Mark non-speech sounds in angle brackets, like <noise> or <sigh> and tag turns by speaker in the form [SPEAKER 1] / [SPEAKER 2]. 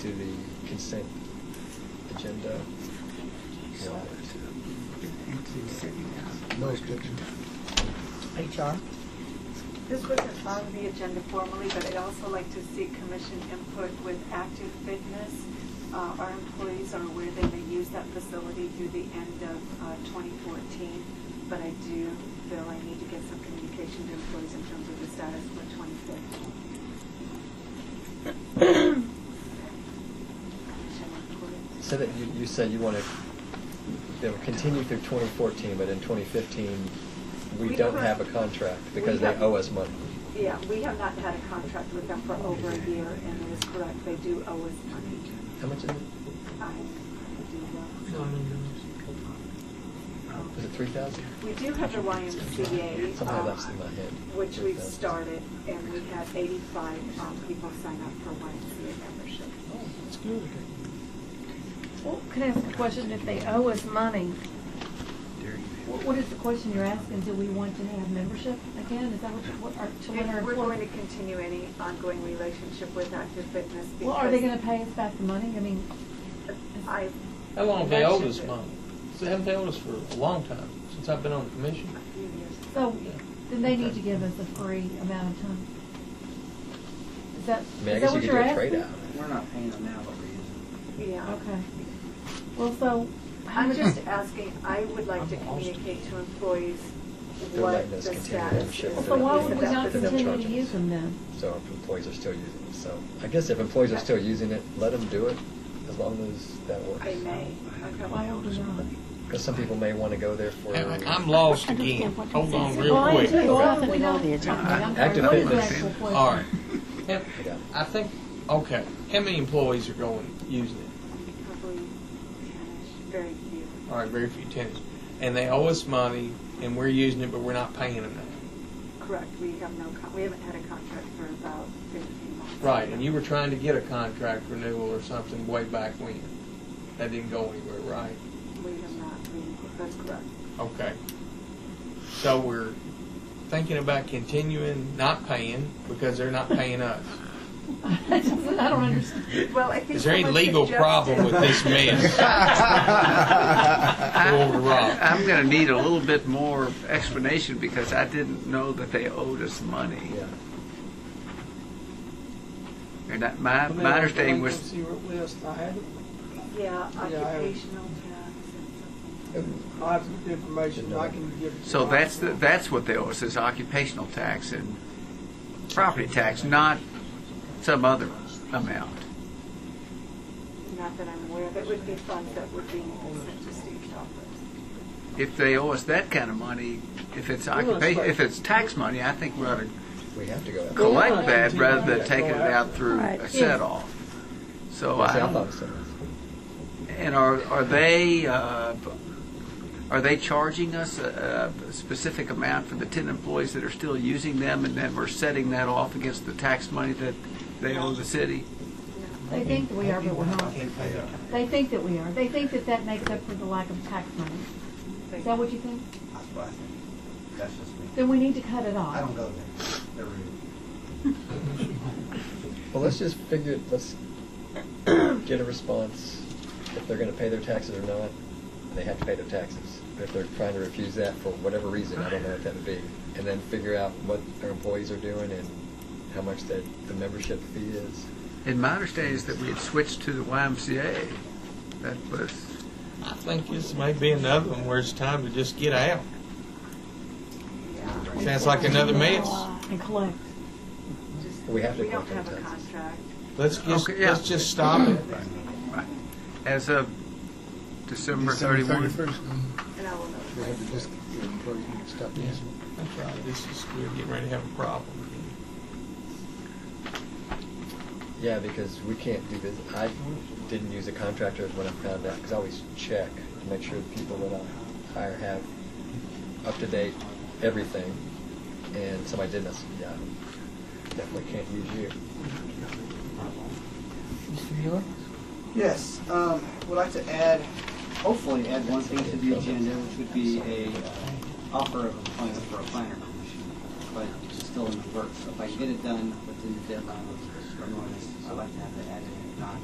[SPEAKER 1] to the consent agenda.
[SPEAKER 2] No objection.
[SPEAKER 3] HR?
[SPEAKER 4] This wasn't on the agenda formally, but I'd also like to seek commission input with active fitness. Uh, Our employees are aware they may use that facility through the end of uh, 2014, but I do feel I need to get some communication to employees in terms of the status for 2015.
[SPEAKER 1] So that, you, you said you want to, they will continue through 2014, but in 2015, we
[SPEAKER 4] We
[SPEAKER 1] don't
[SPEAKER 4] don't-
[SPEAKER 1] have a contract because
[SPEAKER 4] we
[SPEAKER 1] they
[SPEAKER 4] have-
[SPEAKER 1] owe us money.
[SPEAKER 4] Yeah, we have not had a contract with them for over a year, and it is correct, they do owe us money.
[SPEAKER 1] How much is it?
[SPEAKER 4] I- I do, uh,
[SPEAKER 1] Is it 3,000?
[SPEAKER 4] Um, We do have the YMCA,
[SPEAKER 1] Somehow
[SPEAKER 4] um,
[SPEAKER 1] that's in my head.
[SPEAKER 4] which we've
[SPEAKER 1] 3,000.
[SPEAKER 4] started, and we had 85 um, people sign up for YMCA membership.
[SPEAKER 3] Oh. Well, can I ask a question? If they owe us money, what, what is the question you're asking? Do we want to have membership again? Is that what, you- what, are, to what our
[SPEAKER 4] And we're going to
[SPEAKER 3] employees?
[SPEAKER 4] continue any ongoing relationship with Active Fitness because...
[SPEAKER 3] Well, are they gonna pay us back the money? I mean,
[SPEAKER 4] I,
[SPEAKER 5] How long have they owed us
[SPEAKER 4] That's-
[SPEAKER 5] money? They haven't owed us for a long time, since I've been on the commission.
[SPEAKER 4] a few years,
[SPEAKER 3] so, then they need to give us a free amount of time. Is
[SPEAKER 1] I
[SPEAKER 3] that,
[SPEAKER 1] mean, I
[SPEAKER 3] is that
[SPEAKER 1] guess you
[SPEAKER 3] what
[SPEAKER 1] could do
[SPEAKER 3] you're
[SPEAKER 1] a
[SPEAKER 3] asking?
[SPEAKER 1] trade-out.
[SPEAKER 6] We're not paying them now, but we're using
[SPEAKER 4] yeah.
[SPEAKER 3] Okay. Well, so, how
[SPEAKER 4] I'm
[SPEAKER 3] much,
[SPEAKER 4] just asking, I would like to communicate to employees
[SPEAKER 1] They're
[SPEAKER 4] what
[SPEAKER 1] letting
[SPEAKER 4] the
[SPEAKER 1] us
[SPEAKER 4] status
[SPEAKER 1] continue
[SPEAKER 4] is.
[SPEAKER 1] membership.
[SPEAKER 3] so why
[SPEAKER 4] of
[SPEAKER 3] would we
[SPEAKER 4] that
[SPEAKER 3] not
[SPEAKER 1] They're not
[SPEAKER 3] continue to
[SPEAKER 1] charging
[SPEAKER 3] use
[SPEAKER 1] us.
[SPEAKER 3] them then?
[SPEAKER 1] So our employees are still using it. So I guess if employees are still using it, let them do it as long as that works.
[SPEAKER 4] I may, okay. Um,
[SPEAKER 3] Why would we not?
[SPEAKER 1] Because some people may want to go there for.
[SPEAKER 5] I'm lost again. Hold on Oh, real
[SPEAKER 3] Why
[SPEAKER 5] quick.
[SPEAKER 3] do- why would
[SPEAKER 7] Nothing
[SPEAKER 3] we not?
[SPEAKER 7] on the agenda.
[SPEAKER 3] I'm sorry,
[SPEAKER 1] Active
[SPEAKER 3] what is the
[SPEAKER 1] fitness.
[SPEAKER 3] actual question?
[SPEAKER 5] All right. How- I think, okay, how many employees are going, using it?
[SPEAKER 4] Probably ten-ish, very few.
[SPEAKER 5] All right, very few tenants. And they owe us money, and we're using it, but we're not paying them now.
[SPEAKER 4] Correct, we have no, con- we haven't had a contract for about fifteen months.
[SPEAKER 5] Right, and you were trying to get a contract renewal or something way back when. That didn't go anywhere, right?
[SPEAKER 4] We have not, we, that's correct.
[SPEAKER 5] Okay. So we're thinking about continuing not paying because they're not paying us.
[SPEAKER 3] I just- I don't understand.
[SPEAKER 4] Well, I think.
[SPEAKER 5] Is there any
[SPEAKER 4] someone
[SPEAKER 5] legal
[SPEAKER 4] suggested-
[SPEAKER 5] problem
[SPEAKER 4] <laughs>
[SPEAKER 5] with this mess? Over Rob.
[SPEAKER 6] I'm going to need a little bit more explanation because I didn't know that they owed us money.
[SPEAKER 1] Yeah.
[SPEAKER 6] And that, my, my understanding was,
[SPEAKER 8] list, I had,
[SPEAKER 4] Yeah,
[SPEAKER 8] I-
[SPEAKER 4] occupational tax and something.
[SPEAKER 8] I'll have some information, I can give. it to
[SPEAKER 6] so
[SPEAKER 8] you.
[SPEAKER 6] that's, the- that's what they owe us, is occupational tax and property tax, not some other amount.
[SPEAKER 4] Not that I'm aware of, it would be funds that would be sent to Steve's office.
[SPEAKER 6] If they owe us that kind of money, if it's
[SPEAKER 8] Well, it's
[SPEAKER 6] occupation,
[SPEAKER 8] like-
[SPEAKER 6] if it's tax money, I think we ought to
[SPEAKER 1] We have to go. out.
[SPEAKER 6] collect
[SPEAKER 8] Yeah.
[SPEAKER 6] that rather than taking it out through
[SPEAKER 7] Right.
[SPEAKER 6] a set-off. So
[SPEAKER 1] See, I
[SPEAKER 6] I,
[SPEAKER 1] thought so.
[SPEAKER 6] and are, are they, uh, are they charging us a, a specific amount for the ten employees that are still using them and then we're setting that off against the tax money that they owe the city?
[SPEAKER 3] They think that we are, but we're not. They think that we are. They think that that makes up for the lack of tax money. Is that what you think?
[SPEAKER 9] That's what I think. That's just me.
[SPEAKER 3] Then we need to cut it
[SPEAKER 9] I don't
[SPEAKER 3] off.
[SPEAKER 9] go there. They're rude.
[SPEAKER 1] Well, let's just figure. Let's get a response if they're going to pay their taxes or not. and They have to pay their taxes. But if they're trying to refuse that for whatever reason, I don't know what that would be. And then figure out what their employees are doing and how much that the membership fee is.
[SPEAKER 6] And my understanding is that we had switched to the YMCA. That was,
[SPEAKER 5] I think this may be another one where it's time to just get out. Sounds like another mess.
[SPEAKER 3] And collect.
[SPEAKER 4] Just-
[SPEAKER 1] We have to
[SPEAKER 4] don't
[SPEAKER 1] collect
[SPEAKER 4] have
[SPEAKER 1] on
[SPEAKER 4] a
[SPEAKER 1] taxes.
[SPEAKER 4] contract.
[SPEAKER 5] Let's just,
[SPEAKER 6] Okay, yeah.
[SPEAKER 5] let's just stop it.
[SPEAKER 6] uh, as of December
[SPEAKER 2] December
[SPEAKER 6] thirty-one.
[SPEAKER 2] 31st,
[SPEAKER 4] And I will know.
[SPEAKER 2] we had to just, your employees need to stop
[SPEAKER 5] Yeah,
[SPEAKER 2] using it.
[SPEAKER 5] That's right, this is, we're getting ready to have a problem.
[SPEAKER 1] Yeah, because we can't do this. I didn't use a contractor when I found out, because I always check to make sure the people that I hire have up to date everything. And somebody didn't, I said, yeah, definitely can't use you.
[SPEAKER 7] Mr. Mueller?
[SPEAKER 9] Yes, um, would like to add, hopefully add one thing to the agenda, which would be a uh, offer of employment for a planner commission. But it's still in the works, so if I can get it done within the deadline, of the notice, I'd like to have that added, if not,